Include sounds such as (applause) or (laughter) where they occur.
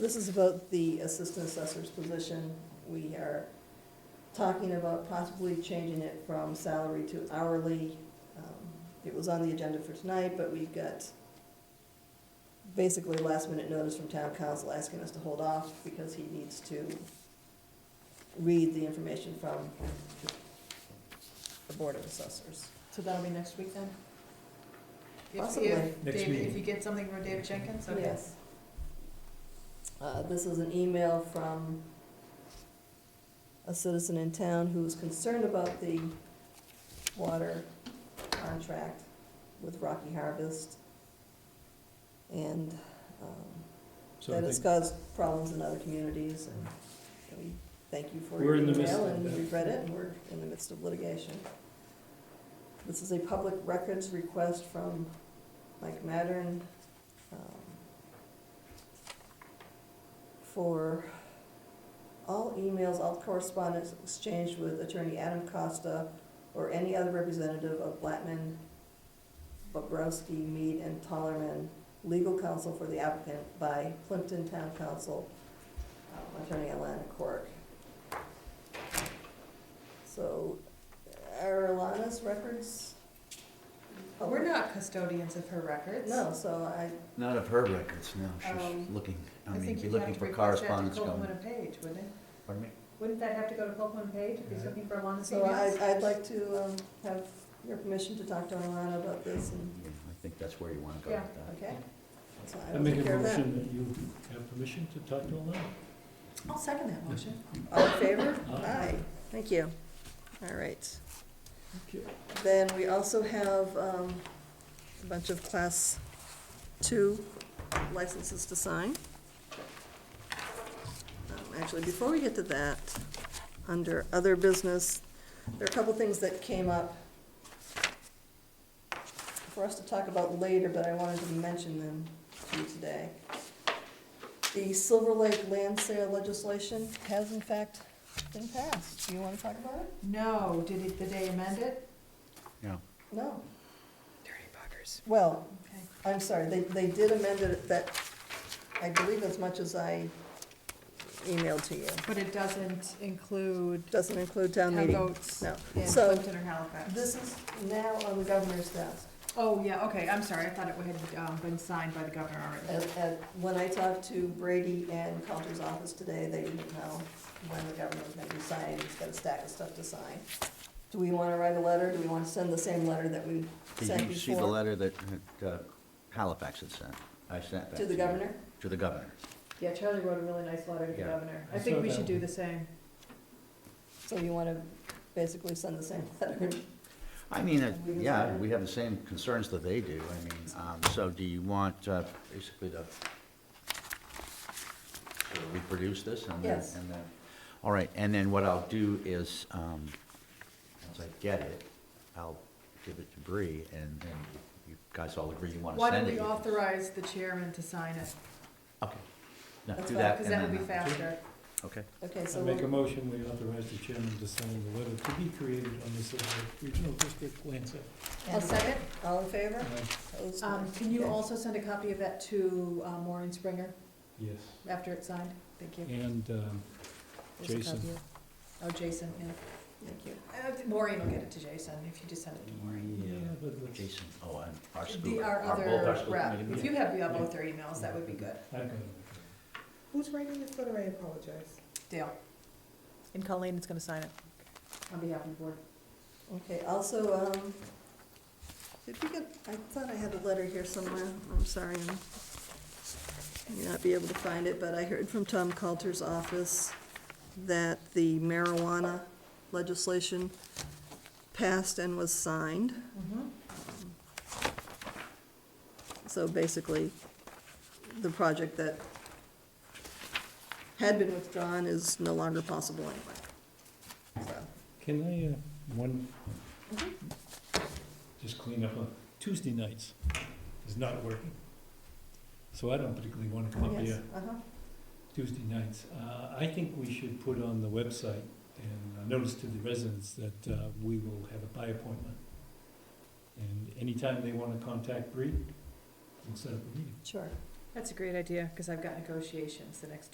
This is about the assistant assessor's position. We are talking about possibly changing it from salary to hourly. Um, It was on the agenda for tonight, but we got basically last minute notice from town council asking us to hold off because he needs to read the information from the Board of Assessors. So that'll be next week then? If- if Possibly. Dave- Next meeting. If you get something from David Jenkins, okay. Yes. Uh, This is an email from a citizen in town who's concerned about the water contract with Rocky Harvest. And um, So that I has think, caused problems in other communities, and we thank you for We're your in the midst email, of and that. we've read it, and we're in the midst of litigation. This is a public records request from Mike Mattern, um, for all emails, all correspondence exchanged with attorney Adam Costa or any other representative of Blattman, Bobrowski, Mead, and Tollerman, legal counsel for the applicant by Plimpton Town Council, um, attorney Alana Cork. So are Alana's records? We're not custodians of her records. No, so I, Not of her records, no, she's Um, looking, I I mean, think be you'd looking have to for request that to correspondence Copeland going. and Page, wouldn't it? Pardon me? Wouldn't that have to go to Copeland and Page if he's Yeah. looking for Alana's so I, emails? I'd like to, um, have your permission to talk to Alana about this and, Yeah, I think that's where you wanna go Mm-hmm. Yeah. with that. okay? So I I will make take a care of that. motion that you have permission to talk to Alana. I'll second that motion. All in favor? Aye. Thank you. All right. Okay. Then we also have um, a bunch of Class 2 licenses to sign. Um, Actually, before we get to that, under other business, there are a couple things that came up for us to talk about later, but I wanted to mention them to you today. The Silver Lake land sale legislation has in fact been passed. Do you want to talk about it? No, did it, the day amend it? Yeah, No. Dirty buggers. Well, Okay. I'm sorry, they, they did amend it that, I believe as much as I emailed to you. But it doesn't include Doesn't include town town meeting. votes No. in So- Plimpton or Halifax. This is now on the governor's desk. Oh, yeah, okay, I'm sorry, I thought it had um, been signed by the governor already. And, and when I talked to Brady and Coulter's office today, they didn't know when the governor was gonna be signing, he's got a stack of stuff to sign. Do we wanna write a letter, do we wanna send the same letter that we sent did you see the before letter that that, uh, Halifax had sent? I sent that to the you. governor? To the governor. Yeah, Charlie wrote a really nice letter to the Yeah. governor. I I think saw we that should do one. the same. So you wanna basically send the same (laughs) letter? I mean, uh, We can yeah, sign it. we have the same concerns that they do, I mean, um, so do you want, uh, basically to to reproduce this and then, Yes. and then, all right, and then what I'll do is, um, once I get it, I'll give it to Bree and then you guys all agree you wanna Why don't send it. we you can- authorize the chairman to sign it? Okay, no, That's do fine, that. Because and that would be then- faster. Okay, Okay, I so make a we'll- motion, we authorize the chairman to sign the letter to be created on the Silver Lake Regional District land sale. I'll second. all in favor? Uh, Opposed? Um, can you Okay. also send a copy of that to, uh, Maureen Springer Yes, after it's signed? Thank you. and, um, There's a Jason. copy of- Oh, Jason, yeah. Thank you. Uh, Maureen will get it to Jason if you just send it to Maureen. yeah, yeah, but let's, Jason, oh, and our The, school, our our both our other school rep, committee if meeting. you have, you have both their emails, that would be good. I've got it. Who's writing this letter? I apologize. Dale, And Colleen is gonna sign it. on behalf of the board. Okay, also, um, did we get, I thought I had a letter here somewhere, I'm sorry, I'm- I may not be able to find it, but I heard from Tom Coulter's office that the marijuana legislation passed and was signed. Mm-hmm. So basically, the project that had been withdrawn is no longer possible anyway. So, Can I, uh, one, just clean up, on- Tuesday nights is not working. So I don't particularly wanna come up Yes, here uh-huh. Tuesday nights. Uh, I think we should put on the website and a notice to the residents that uh, we will have a by appointment. And anytime they want to contact Bree, we'll set up a meeting. Sure. That's a great idea, because I've got negotiations the next